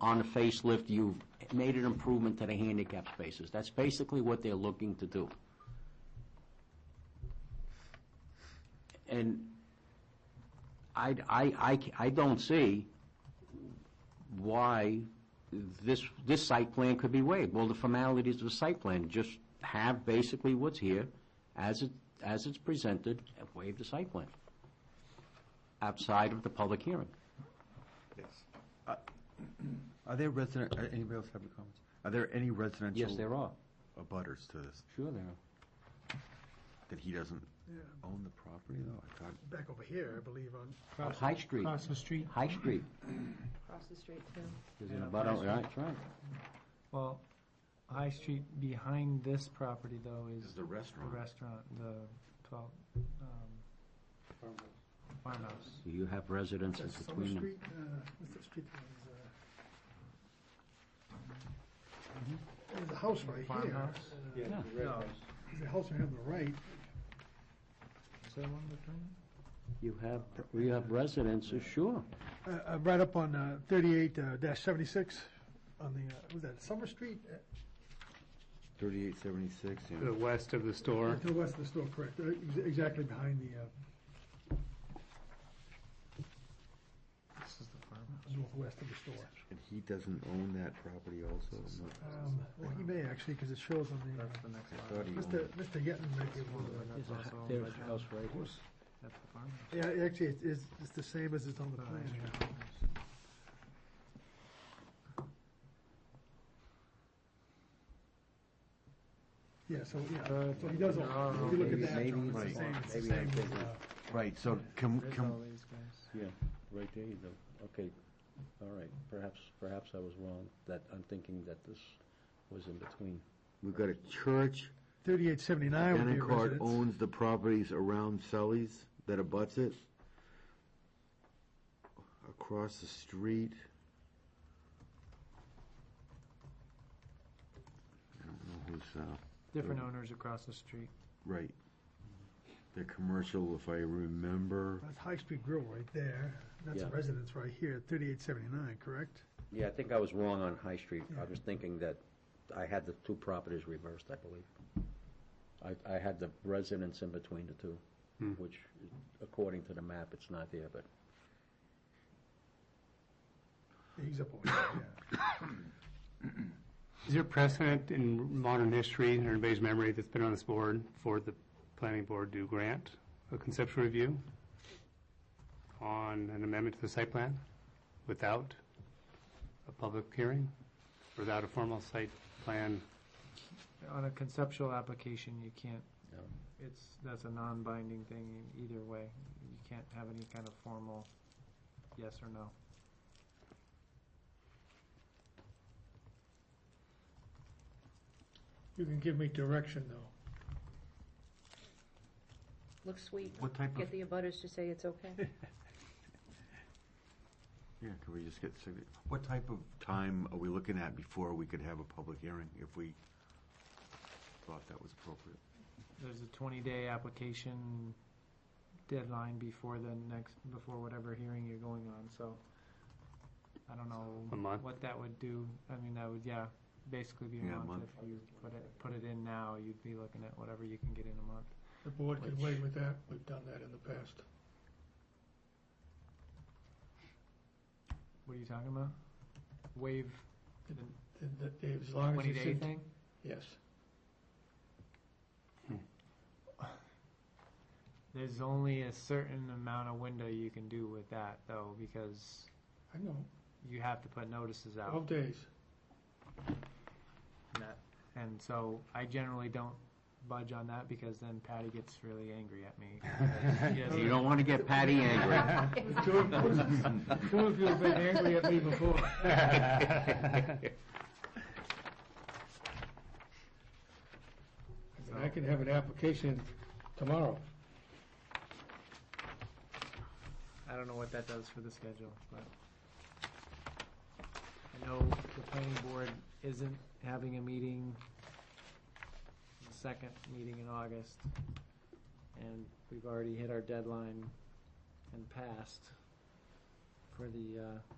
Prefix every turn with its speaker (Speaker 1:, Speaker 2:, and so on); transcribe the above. Speaker 1: on the facelift, you've made an improvement to the handicap spaces. That's basically what they're looking to do. And I, I, I c- I don't see why this, this site plan could be waived. Well, the formalities of the site plan, just have basically what's here as it, as it's presented, and waive the site plan outside of the public hearing.
Speaker 2: Uh, Are there resident, uh, anybody else have any comments? Are there any residential?
Speaker 1: Yes, there are.
Speaker 2: Abutters to this,
Speaker 1: Sure there are.
Speaker 2: that he doesn't own the property though? I thought,
Speaker 3: back over here, I believe, on.
Speaker 1: Up High Street.
Speaker 3: Across the street,
Speaker 1: High Street.
Speaker 4: Across the street too.
Speaker 1: There's
Speaker 3: Yeah,
Speaker 1: an abutter,
Speaker 3: High
Speaker 1: right, Oh, that's
Speaker 3: Street.
Speaker 1: right.
Speaker 3: well, High Street behind this property though
Speaker 2: this
Speaker 3: is
Speaker 2: is the
Speaker 3: the
Speaker 2: restaurant.
Speaker 3: restaurant, the twelve, um, farmhouse.
Speaker 1: So You have residences between them.
Speaker 5: what's that uh, street that is, uh, There's a house right here.
Speaker 3: Mm-hmm. Farmhouse?
Speaker 1: Yeah.
Speaker 3: No.
Speaker 5: There's a house right on the right.
Speaker 3: Is that one between?
Speaker 1: You have, you have residences, sure.
Speaker 5: Uh, uh, right up on, uh, thirty-eight, uh, dash seventy-six, on the, uh, was that Summer Street? Uh,
Speaker 2: Thirty-eight seventy-six,
Speaker 6: To the west of the store.
Speaker 5: To the west of the store, correct, Uh, ex- exactly behind the, uh,
Speaker 3: This is the farmhouse.
Speaker 5: northwest of the store.
Speaker 2: and he doesn't own that property also? I'm not-
Speaker 5: Um, well, he may actually, because it shows on the, uh,
Speaker 3: That's the
Speaker 2: I
Speaker 3: next lot.
Speaker 2: thought he
Speaker 5: Mr.
Speaker 2: owned.
Speaker 5: Mr. Yeton might be one of them.
Speaker 3: That's also owned by
Speaker 1: There's
Speaker 3: John.
Speaker 1: house right here.
Speaker 3: That's the farmhouse.
Speaker 5: Yeah, actually, it's, it's, it's the same as it's on the
Speaker 3: Uh,
Speaker 5: plan.
Speaker 3: yeah.
Speaker 5: Yeah, so, yeah,
Speaker 3: Uh,
Speaker 5: so he does,
Speaker 3: there are
Speaker 5: own- if you look at
Speaker 2: Ah, maybe-
Speaker 5: that, John, it's the
Speaker 2: maybe-
Speaker 5: same, it's the
Speaker 2: maybe I'm
Speaker 5: same as,
Speaker 2: thinking-
Speaker 5: uh,
Speaker 2: Right, so can,
Speaker 3: There's
Speaker 2: can,
Speaker 3: all these guys.
Speaker 1: Yeah, right there you go. Okay, all right, perhaps, perhaps I was wrong, that, I'm thinking that this was in between.
Speaker 2: we've got a church,
Speaker 5: Thirty-eight seventy-nine would be a
Speaker 2: Danicourt
Speaker 5: residence.
Speaker 2: owns the properties around Sully's that abuts it. Across the street. I don't know who's, uh.
Speaker 3: Different owners across the street.
Speaker 2: Right. The commercial, if I remember,
Speaker 5: That's High Street Grill right there. That's a
Speaker 1: Yeah.
Speaker 5: residence right here, thirty-eight seventy-nine, correct?
Speaker 1: Yeah, I think I was wrong on High Street. I was thinking that I had the two properties reversed, I believe. I, I had the residence in between the two, which according to the map, it's not there, but
Speaker 5: He's up over here, yeah.
Speaker 6: Is there precedent in modern history, in everybody's memory, that's been on this board for the planning board to grant a conceptual review on an amendment to the site plan without a public hearing, without a formal site plan?
Speaker 3: On a conceptual application, you can't,
Speaker 1: No.
Speaker 3: it's, that's a non-binding thing either way. You can't have any kind of formal yes or no.
Speaker 5: You can give me direction, though.
Speaker 4: Looks sweet.
Speaker 2: what type of,
Speaker 4: Get the abutters to say it's okay.
Speaker 2: yeah, could we just get, signa- what type of time are we looking at before we could have a public hearing, if we thought that was appropriate?
Speaker 3: There's a twenty-day application deadline before the next, before whatever hearing you're going on, so I don't
Speaker 6: A
Speaker 3: know
Speaker 6: month?
Speaker 3: what that would do. I mean, that would, yeah, basically be a
Speaker 2: Yeah, a
Speaker 3: month
Speaker 2: month.
Speaker 3: if you put it, put it in now, you'd be looking at whatever you can get in a month.
Speaker 5: The board
Speaker 1: can
Speaker 5: wait with that. We've done that in the past.
Speaker 3: What are you talking about? Waive
Speaker 5: As long
Speaker 3: twenty-day thing?
Speaker 5: Yes.
Speaker 3: There's only a certain amount of window you can do with that, though, because
Speaker 5: I know,
Speaker 3: you have to put notices out.
Speaker 5: days.
Speaker 3: And so I generally don't budge on that because then Patty gets really angry at me. Yes.
Speaker 1: you don't want to get Patty angry.
Speaker 5: Two of two of you have been angry at me before. I can have an application tomorrow.
Speaker 3: I don't know what that does for the schedule, but I know the planning board isn't having a meeting, the second meeting in August, and we've already hit our deadline and passed for the, uh,